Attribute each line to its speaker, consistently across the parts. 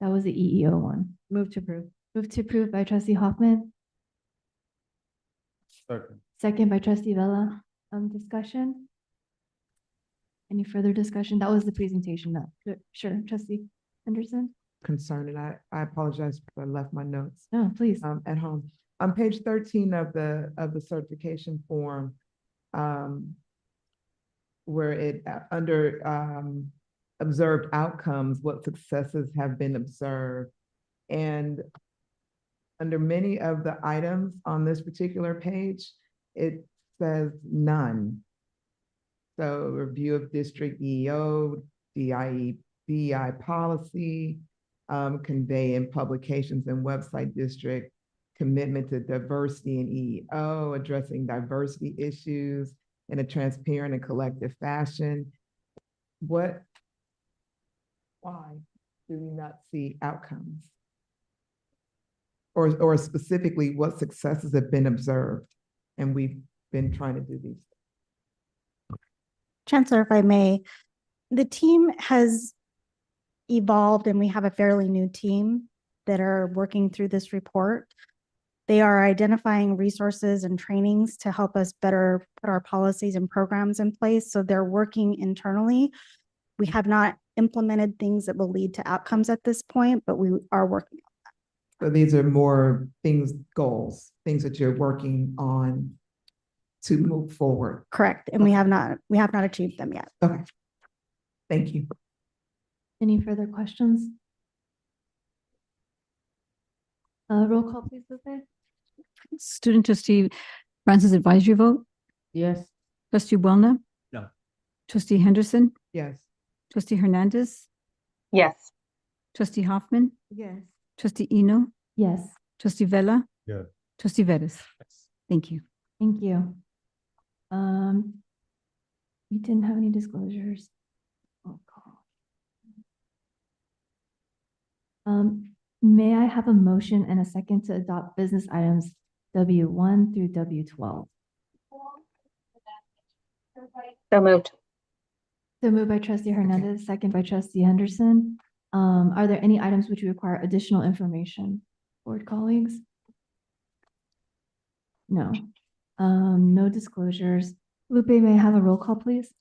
Speaker 1: That was the EEO one.
Speaker 2: Move to approve.
Speaker 1: Move to approve by trustee Hoffman,
Speaker 3: Second.
Speaker 1: second by trustee Vella. Um, discussion? Any further discussion? That was the presentation, no. Good. Sure, trustee Henderson?
Speaker 4: concern, and I, I apologize if I left my notes
Speaker 1: No, please.
Speaker 4: um, at home. On page thirteen of the, of the certification form, um, where it, uh, under, um, observed outcomes, what successes have been observed. And under many of the items on this particular page, it says none. So review of district E EO, DIE, BI E, policy, um, convey in publications and website district, commitment to diversity and EEO, addressing diversity issues in a transparent and collective fashion. What? Why do we not see outcomes? Or, or specifically, what successes have been observed? And we've been trying to do these.
Speaker 5: Chancellor, if I may, the team has evolved and we have a fairly new team that are working through this report. They are identifying resources and trainings to help us better put our policies and programs in place. So they're working internally. We have not implemented things that will lead to outcomes at this point, but we are working.
Speaker 4: So these are more things, goals, things that you're working on to move forward.
Speaker 5: Correct. And we have not, we have not achieved them yet.
Speaker 4: Okay. Thank you.
Speaker 1: Any further questions? Uh, roll call, please, Lupe?
Speaker 6: Student trustee Francis advisory vote,
Speaker 2: Yes.
Speaker 6: trustee Bona.
Speaker 3: No.
Speaker 6: Trustee Henderson,
Speaker 4: Yes.
Speaker 6: trustee Hernandez,
Speaker 7: yes,
Speaker 6: trustee Hoffman,
Speaker 2: Yes.
Speaker 6: trustee Eno,
Speaker 1: Yes,
Speaker 6: trustee Vella.
Speaker 3: Yeah.
Speaker 6: Trustee Vettis. Thank you.
Speaker 1: thank you. Um, we didn't have any disclosures. Oh, Roll call. Um, may I have a motion and a second to adopt business items W one through W twelve?
Speaker 7: so moved,
Speaker 1: So moved by trustee Hernandez, second by trustee Henderson. Um, are there any items which require additional information, board colleagues? No, um, no disclosures. Lupe, may I have a roll call, please?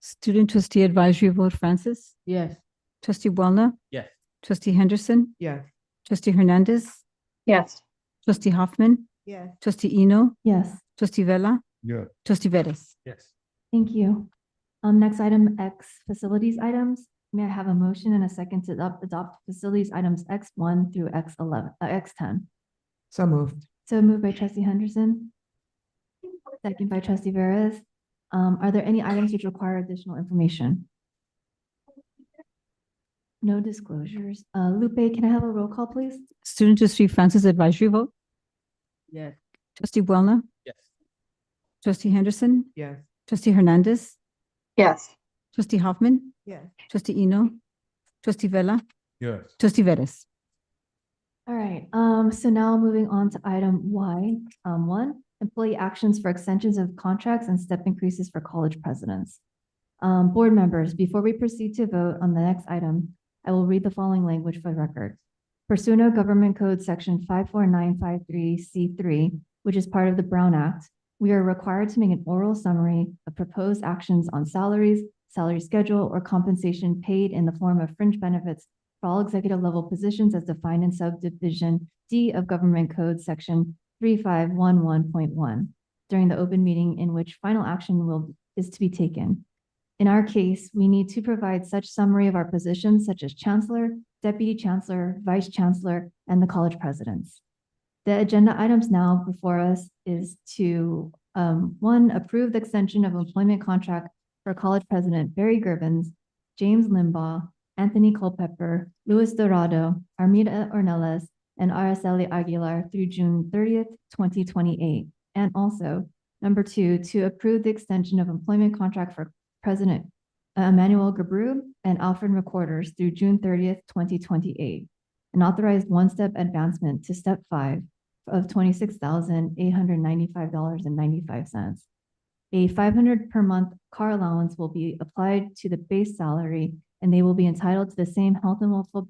Speaker 6: Student trustee advisory vote, Francis,
Speaker 2: Yes.
Speaker 6: trustee Bona,
Speaker 3: Yes.
Speaker 6: trustee Henderson,
Speaker 4: Yes.
Speaker 6: trustee Hernandez,
Speaker 7: yes,
Speaker 6: trustee Hoffman,
Speaker 2: Yes.
Speaker 6: trustee Eno,
Speaker 1: Yes,
Speaker 6: trustee Vella,
Speaker 3: Yeah.
Speaker 6: trustee Vettis.
Speaker 3: Yes.
Speaker 1: thank you. Um, next item, X facilities items. May I have a motion and a second to adopt, adopt facilities items X one through X eleven, uh, X ten?
Speaker 4: So moved.
Speaker 1: So moved by trustee Henderson. Second by trustee Veras. Um, are there any items which require additional information? No disclosures. Uh, Lupe, can I have a roll call, please?
Speaker 6: Student trustee Francis advisory vote,
Speaker 2: Yes.
Speaker 6: trustee Bona,
Speaker 3: Yes.
Speaker 6: trustee Henderson,
Speaker 4: Yes.
Speaker 6: trustee Hernandez,
Speaker 7: yes,
Speaker 6: Trustee Hoffman,
Speaker 2: Yes.
Speaker 6: trustee Eno, trustee Vella,
Speaker 3: Yes.
Speaker 6: trustee Vettis.
Speaker 1: All right, um, so now moving on to item Y, um, one, employee actions for extensions of contracts and step increases for college presidents. Um, board members, before we proceed to vote on the next item, I will read the following language for the record. Pursuant to Government Code Section five four nine five three C three, which is part of the Brown Act, we are required to make an oral summary of proposed actions on salaries, salary schedule, or compensation paid in the form of fringe benefits for all executive level positions as defined in subdivision D of Government Code, section three five one one point one, during the open meeting in which final action will, is to be taken. In our case, we need to provide such summary of our positions such as chancellor, deputy chancellor, vice chancellor, and the college presidents. The agenda items now before us is to, um, one, approve the extension of employment contract for college president Barry Gervens, James Limbaugh, Anthony Culpepper, Luis Dorado, Armida Ornelas, and Araceli Aguilar through June thirtieth, twenty twenty-eight. And also, number two, to approve the extension of employment contract for President Emmanuel Gabru and Alfred Recorders through June thirtieth, twenty twenty-eight. An authorized one-step advancement to step five of twenty-six thousand eight hundred ninety-five dollars and ninety-five cents. A five hundred per month car allowance will be applied to the base salary and they will be entitled to the same health and welfare